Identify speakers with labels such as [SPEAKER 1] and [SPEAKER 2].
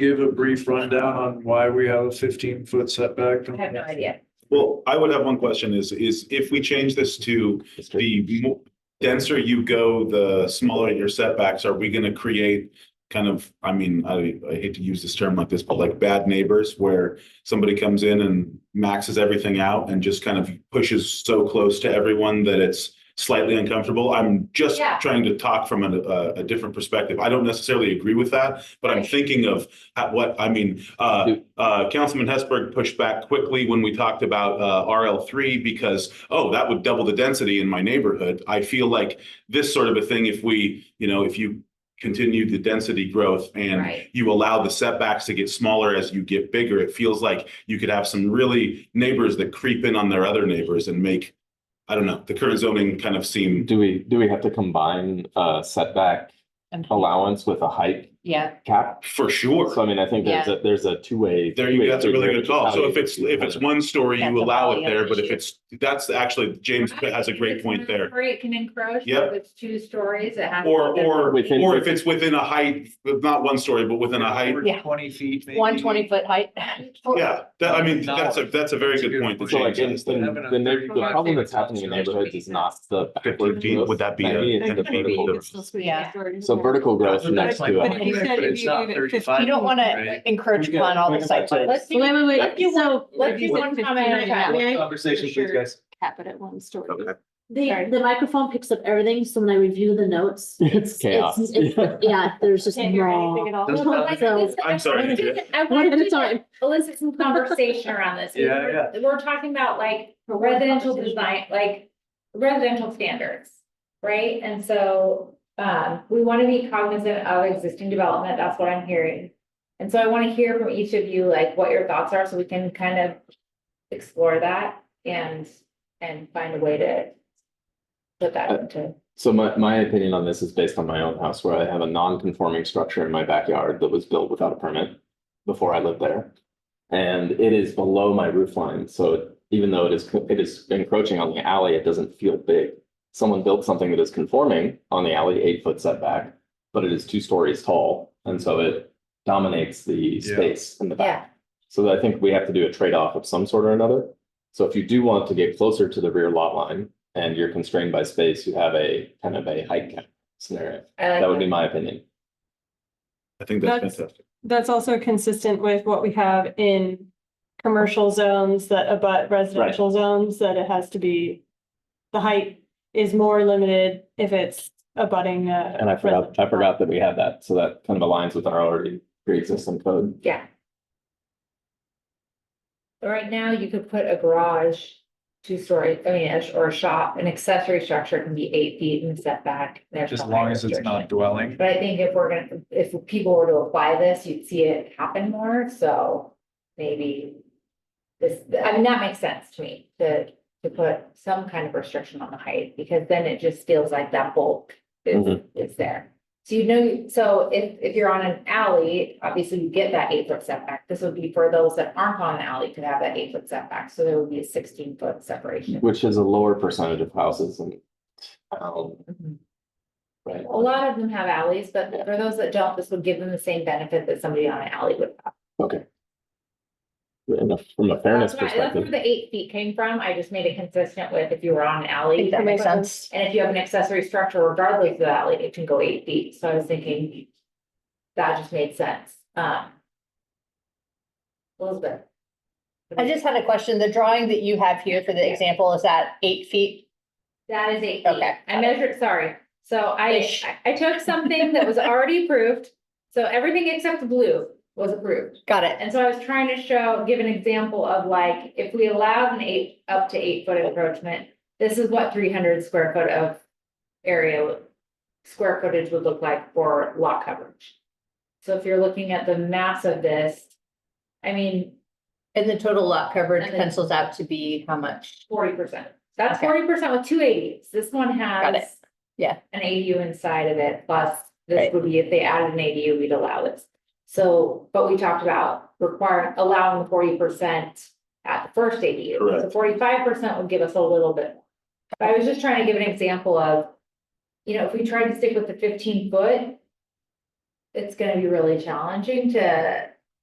[SPEAKER 1] give a brief rundown on why we have a fifteen foot setback?
[SPEAKER 2] I have no idea.
[SPEAKER 3] Well, I would have one question is, is if we change this to the mo- denser you go, the smaller your setbacks, are we gonna create kind of, I mean, I, I hate to use this term like this, but like bad neighbors where somebody comes in and maxes everything out and just kind of pushes so close to everyone that it's slightly uncomfortable? I'm just
[SPEAKER 2] Yeah.
[SPEAKER 3] trying to talk from a, a, a different perspective. I don't necessarily agree with that, but I'm
[SPEAKER 2] Right.
[SPEAKER 3] thinking of at what, I mean, uh, uh, Councilman Hesberg pushed back quickly when we talked about uh, RL3 because, oh, that would double the density in my neighborhood. I feel like this sort of a thing, if we, you know, if you continue the density growth and
[SPEAKER 2] Right.
[SPEAKER 3] you allow the setbacks to get smaller as you get bigger, it feels like you could have some really neighbors that creep in on their other neighbors and make, I don't know, the current zoning kind of seem,
[SPEAKER 4] Do we, do we have to combine uh setback
[SPEAKER 2] And-
[SPEAKER 4] allowance with a height
[SPEAKER 2] Yeah,
[SPEAKER 4] cap?
[SPEAKER 3] for sure.
[SPEAKER 4] So I mean, I think there's a, there's a two-way.
[SPEAKER 3] There you
[SPEAKER 4] two-way
[SPEAKER 3] go. That's a really
[SPEAKER 4] figure
[SPEAKER 3] good call. So
[SPEAKER 4] out
[SPEAKER 3] if it's, if it's
[SPEAKER 4] how to-
[SPEAKER 3] one story,
[SPEAKER 2] That's
[SPEAKER 3] you
[SPEAKER 2] a
[SPEAKER 3] allow it
[SPEAKER 2] volume
[SPEAKER 3] there, but if
[SPEAKER 2] issue.
[SPEAKER 3] it's, that's actually, James has a great
[SPEAKER 2] It's
[SPEAKER 3] point
[SPEAKER 2] not
[SPEAKER 3] there.
[SPEAKER 2] free, It can encroach.
[SPEAKER 3] Yep.
[SPEAKER 2] If it's two stories, it has. to
[SPEAKER 3] Or,
[SPEAKER 2] be-
[SPEAKER 3] or,
[SPEAKER 4] Within-
[SPEAKER 3] or if it's within a height, not one story, but within a height.
[SPEAKER 2] Yeah.
[SPEAKER 1] Twenty feet. maybe?
[SPEAKER 5] One twenty foot height.
[SPEAKER 3] Yeah, that, I mean, that's a, that's a very good point. that
[SPEAKER 4] So like, in
[SPEAKER 3] James
[SPEAKER 1] Having
[SPEAKER 4] the,
[SPEAKER 1] a
[SPEAKER 4] the neigh-
[SPEAKER 1] thirty
[SPEAKER 4] the
[SPEAKER 1] five
[SPEAKER 4] problem that's
[SPEAKER 1] feet is
[SPEAKER 4] happening in
[SPEAKER 1] not
[SPEAKER 4] neighborhoods is not the.
[SPEAKER 3] Fifteen
[SPEAKER 4] backward
[SPEAKER 3] feet,
[SPEAKER 4] growth.
[SPEAKER 3] would that be a-
[SPEAKER 4] Maybe it's
[SPEAKER 3] That's
[SPEAKER 4] the
[SPEAKER 3] gonna be-
[SPEAKER 4] vertical.
[SPEAKER 3] it's
[SPEAKER 2] Yeah.
[SPEAKER 4] So vertical growth
[SPEAKER 1] That's what
[SPEAKER 4] next
[SPEAKER 1] that's
[SPEAKER 4] to
[SPEAKER 1] like.
[SPEAKER 4] it.
[SPEAKER 5] But you said
[SPEAKER 1] But
[SPEAKER 5] if
[SPEAKER 1] it's
[SPEAKER 5] you
[SPEAKER 1] not
[SPEAKER 5] leave it
[SPEAKER 1] 35.
[SPEAKER 5] fifteen-
[SPEAKER 2] You don't want to
[SPEAKER 1] Right.
[SPEAKER 2] encroach
[SPEAKER 4] We've got-
[SPEAKER 2] upon all
[SPEAKER 4] we've
[SPEAKER 2] the site.
[SPEAKER 4] got-
[SPEAKER 2] plans.
[SPEAKER 5] Let's do, wait, wait,
[SPEAKER 4] That-
[SPEAKER 5] wait, so.
[SPEAKER 2] Let's do one comment at a time.
[SPEAKER 5] May I
[SPEAKER 4] Conversation,
[SPEAKER 5] please, Sure.
[SPEAKER 4] guys.
[SPEAKER 5] cap it at one story?
[SPEAKER 3] Okay.
[SPEAKER 6] The,
[SPEAKER 5] Sorry.
[SPEAKER 6] the microphone picks up everything, so when I review the notes.
[SPEAKER 4] It's chaos.
[SPEAKER 6] it's- Yeah, there's just
[SPEAKER 5] Can't hear anything
[SPEAKER 6] raw.
[SPEAKER 5] at all.
[SPEAKER 1] That's
[SPEAKER 6] Well,
[SPEAKER 1] not-
[SPEAKER 6] so-
[SPEAKER 3] I'm sorry.
[SPEAKER 2] I
[SPEAKER 6] One
[SPEAKER 2] want
[SPEAKER 6] at a
[SPEAKER 2] to
[SPEAKER 6] time.
[SPEAKER 2] elicit some conversation around this. We
[SPEAKER 1] Yeah,
[SPEAKER 2] were- We're talking about like residential design, like residential standards, right? And so, um, we want to be cognizant of existing development. That's what I'm hearing. And so I want to hear from each of you, like what your thoughts are, so we can kind of explore that and, and find a way to put
[SPEAKER 4] Uh,
[SPEAKER 2] that into.
[SPEAKER 4] So my, my opinion on this is based on my own house where I have a non-conforming structure in my backyard that was built without a permit before I lived there. And it is below my roof line, so even though it is, co- it is encroaching on the alley, it doesn't feel big. Someone built something that is conforming on the alley, eight foot setback, but it is two stories tall, and so it dominates the
[SPEAKER 1] Yeah.
[SPEAKER 4] space in the back. So I think we have to do a trade-off of some sort or another. So if you do want to get closer to the rear lot line and you're constrained by space, you have a kind of a height cap scenario.
[SPEAKER 2] I like
[SPEAKER 4] That would be my opinion.
[SPEAKER 3] I think that's
[SPEAKER 5] That's-
[SPEAKER 3] fantastic.
[SPEAKER 5] That's also consistent with what we have in commercial zones that abut residential zones, that it has to be. The height is more limited if it's abutting a.
[SPEAKER 4] And I forgot, I forgot that we had that. So that kind of aligns with our already pre-existing code.
[SPEAKER 2] Yeah. But Right now, you could put a garage, two story, I mean, a sh- or a shop, an accessory structure can be eight feet in setback. There's
[SPEAKER 1] As
[SPEAKER 2] no
[SPEAKER 1] long as it's
[SPEAKER 2] restriction.
[SPEAKER 1] not dwelling.
[SPEAKER 2] But I think if we're gonna, if people were to apply this, you'd see it happen more, so maybe. This, I mean, that makes sense to me, to, to put some kind of restriction on the height, because then it just feels like that bulk is,
[SPEAKER 4] Mhm.
[SPEAKER 2] is there. So you know, so if, if you're on an alley, obviously you get that eight foot setback, this would be for those that aren't on an alley could have that eight foot setback, so there would be a sixteen foot separation.
[SPEAKER 4] Which is a lower percentage of houses and. um,
[SPEAKER 2] Mhm.
[SPEAKER 4] Right.
[SPEAKER 2] A lot of them have alleys, but for those that don't, this would give them the same benefit that somebody on an alley would have.
[SPEAKER 4] Okay. And from a fairness
[SPEAKER 2] That's why, that's where
[SPEAKER 4] perspective,
[SPEAKER 2] the eight feet came from. I just made it consistent with if you were on an alley. that makes sense. And if you have an accessory structure regardless of the alley, it can go eight feet. So I was thinking that just made sense. Um. Elizabeth.
[SPEAKER 7] I just had a question. The drawing that you have here for the example, is that eight feet?
[SPEAKER 2] That is eight feet.
[SPEAKER 7] Okay.
[SPEAKER 2] I measured, sorry. So I,
[SPEAKER 7] Ish.
[SPEAKER 2] I- I took something that was already approved. So everything except the blue was approved.
[SPEAKER 7] Got it.
[SPEAKER 2] And so I was trying to show, give an example of like, if we allowed an eight, up to eight foot encroachment, this is what three hundred square foot of area, square footage would look like for lot coverage. So if you're looking at the mass of this, I mean,
[SPEAKER 7] And the total lot coverage
[SPEAKER 2] And then-
[SPEAKER 7] pencils out to be how much?
[SPEAKER 2] forty percent. That's
[SPEAKER 7] Okay.
[SPEAKER 2] forty percent with two ADUs. This one
[SPEAKER 7] Got it.
[SPEAKER 2] has
[SPEAKER 7] Yeah.
[SPEAKER 2] an ADU inside of it, plus this
[SPEAKER 7] Right.
[SPEAKER 2] would be, if they added an ADU, we'd allow this. So, but we talked about requiring, allowing forty percent at the first ADU. So
[SPEAKER 3] Correct.
[SPEAKER 2] forty-five percent would give us a little bit. more. But I was just trying to give an example of, you know, if we tried to stick with the fifteen foot, it's gonna be really challenging to